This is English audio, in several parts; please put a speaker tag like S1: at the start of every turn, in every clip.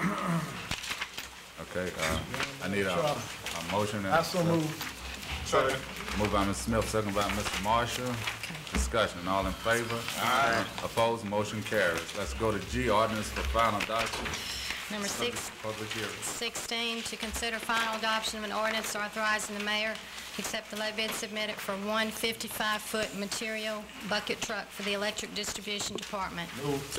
S1: Um, Okay, uh, I need a, a motion. and-
S2: I so move.
S1: Moved by Ms. Smith, second by Mr. Marshall. Discussion, all in favor? Aye. Opposed, motion carries. Let's go to G, ordinance for final adoption,
S3: Number six,
S1: public hearing.
S3: 16, to consider final adoption of an ordinance authorizing the mayor accept the low bid submitted for one 55-foot material bucket truck for the electric distribution department.
S1: Moved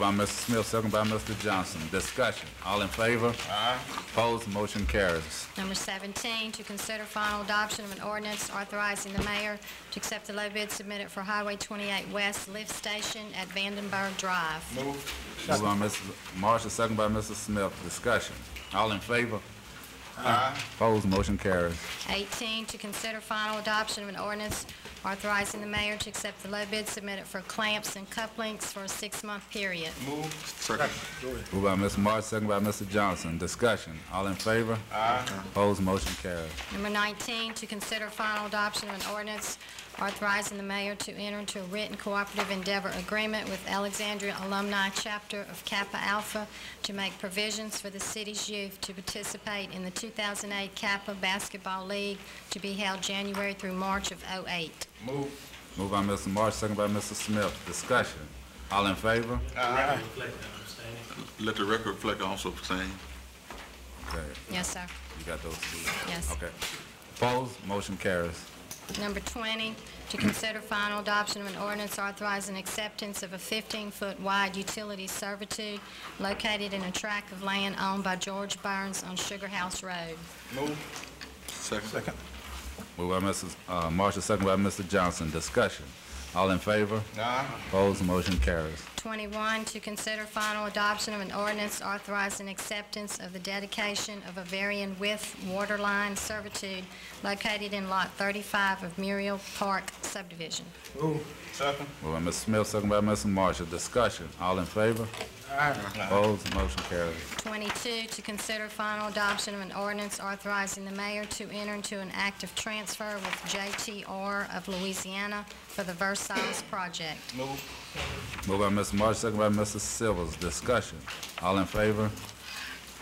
S1: by Mr. Smith, second by Mr. Johnson. Discussion, all in favor? Aye. Opposed, motion carries.
S3: Number 17, to consider final adoption of an ordinance authorizing the mayor to accept the low bid submitted for Highway 28 West Lift Station at Vandenberg Drive.
S1: Moved by Ms. Marshall, second by Mr. Smith. Discussion, all in favor? Aye. Opposed, motion carries.
S3: 18, to consider final adoption of an ordinance authorizing the mayor to accept the low bid submitted for clamps and cufflinks for a six-month period.
S1: Moved by Ms. Marshall, second by Mr. Johnson. Discussion, all in favor? Aye. Opposed, motion carries.
S3: Number 19, to consider final adoption of an ordinance authorizing the mayor to enter into a written cooperative endeavor agreement with Alexandria Alumni Chapter of Kappa Alpha to make provisions for the city's youth to participate in the 2008 Kappa Basketball League to be held January through March of '08.
S1: Moved by Mr. Marsh, second by Mr. Smith. Discussion. All in favor?
S4: Let the record reflect also saying.
S1: Okay,
S3: Yes, sir.
S1: you got those two.
S3: Yes.
S1: Okay. Opposed? Motion carries.
S3: Number 20, to consider final adoption of an ordinance authorizing acceptance of a 15-foot wide utility servitude located in a tract of land owned by George Burns on Sugar House Road.
S4: Second.
S1: Moved by Mrs. uh, Marshall, second by Mr. Johnson. Discussion. All in favor? Aye. Opposed? Motion carries.
S3: 21, to consider final adoption of an ordinance authorizing acceptance of the dedication of a varying width water line servitude located in Lot 35 of Muriel Park subdivision.
S1: Moved by Mr. Smith, second by Mr. Marshall. Discussion. All in favor? Aye. Opposed? Motion carries.
S3: 22, to consider final adoption of an ordinance authorizing the mayor to enter into an act of transfer with JTR of Louisiana for the Versailles project.
S1: Moved by Mr. Marshall, second by Mr. Silvers. Discussion. All in favor?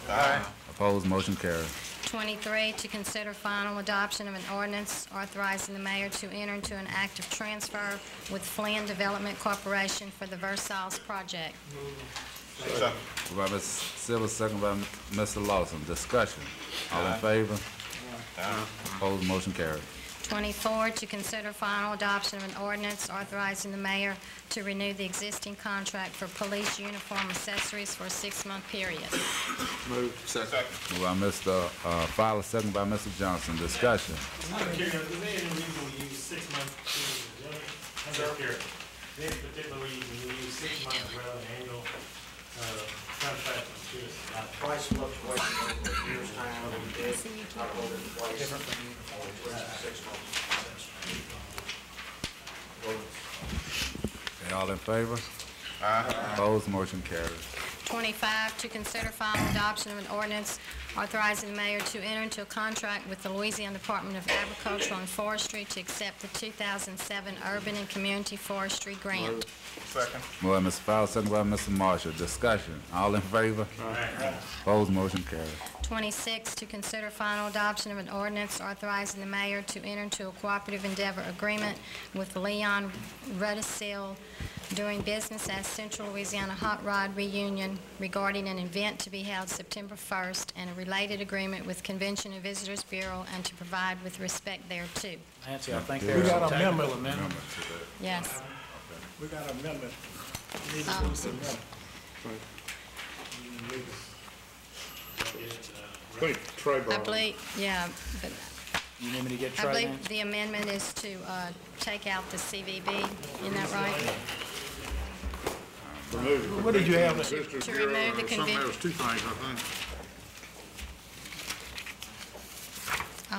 S1: Aye. Opposed? Motion carries.
S3: 23, to consider final adoption of an ordinance authorizing the mayor to enter into an act of transfer with Flynn Development Corporation for the Versailles project.
S1: Moved by Mr. Silver, second by Mr. Lawson. Discussion. All in favor? Opposed, motion carried.
S3: 24, to consider final adoption of an ordinance authorizing the mayor to renew the existing contract for police uniform accessories for a six-month period.
S4: Second.
S1: Moved by Mr. uh, Fowler, second by Mr. Johnson. Discussion.
S5: I'm curious, is there any reason we use six months to, I'm just curious. Any particular reason we use six months rather than annual, uh, contract, I'm curious about that.
S6: Price fluctuations over a year's time, we did upload it twice. Different. Six months.
S1: Okay, All in favor? Opposed, motion carried.
S3: 25, to consider final adoption of an ordinance authorizing the mayor to enter into a contract with the Louisiana Department of Agriculture and Forestry to accept the 2007 Urban and Community Forestry Grant.
S1: Moved by Mr. Fowler, second by Mr. Marshall. Discussion. All in favor? Opposed, motion carried.
S3: 26, to consider final adoption of an ordinance authorizing the mayor to enter into a cooperative endeavor agreement with Leon Rudisil doing business as Central Louisiana Hot Rod Reunion regarding an event to be held September 1st and a related agreement with Convention and Visitors Bureau and to provide with respect thereto.
S7: Nancy, I think
S2: We
S7: there's
S2: got
S7: a
S2: a
S7: technical
S2: amendment.
S7: amendment.
S3: Yes.
S2: We got an amendment. We Need to
S3: Um,
S2: do the amendment.
S3: I believe, yeah, but
S7: You need me to get
S3: I
S7: Trey in?
S3: believe the amendment is to uh, take out the CVB, isn't that right?
S2: What did you have? Mr.
S3: To remove the convention.
S4: two things, I think.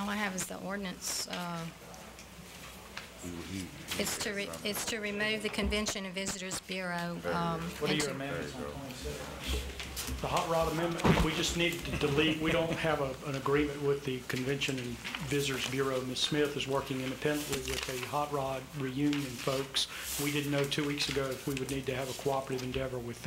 S3: All I have is the ordinance. uh, It's to, re- it's to remove the Convention and Visitors Bureau. um,
S7: What are
S3: and
S7: your
S3: to-
S7: amendments on twenty-six?
S5: The hot rod amendment, we just need to delete, we don't have a, an agreement with the Convention and Visitors Bureau. Ms. Smith is working independently with the hot rod reunion folks. We didn't know two weeks ago if we would need to have a cooperative endeavor with them.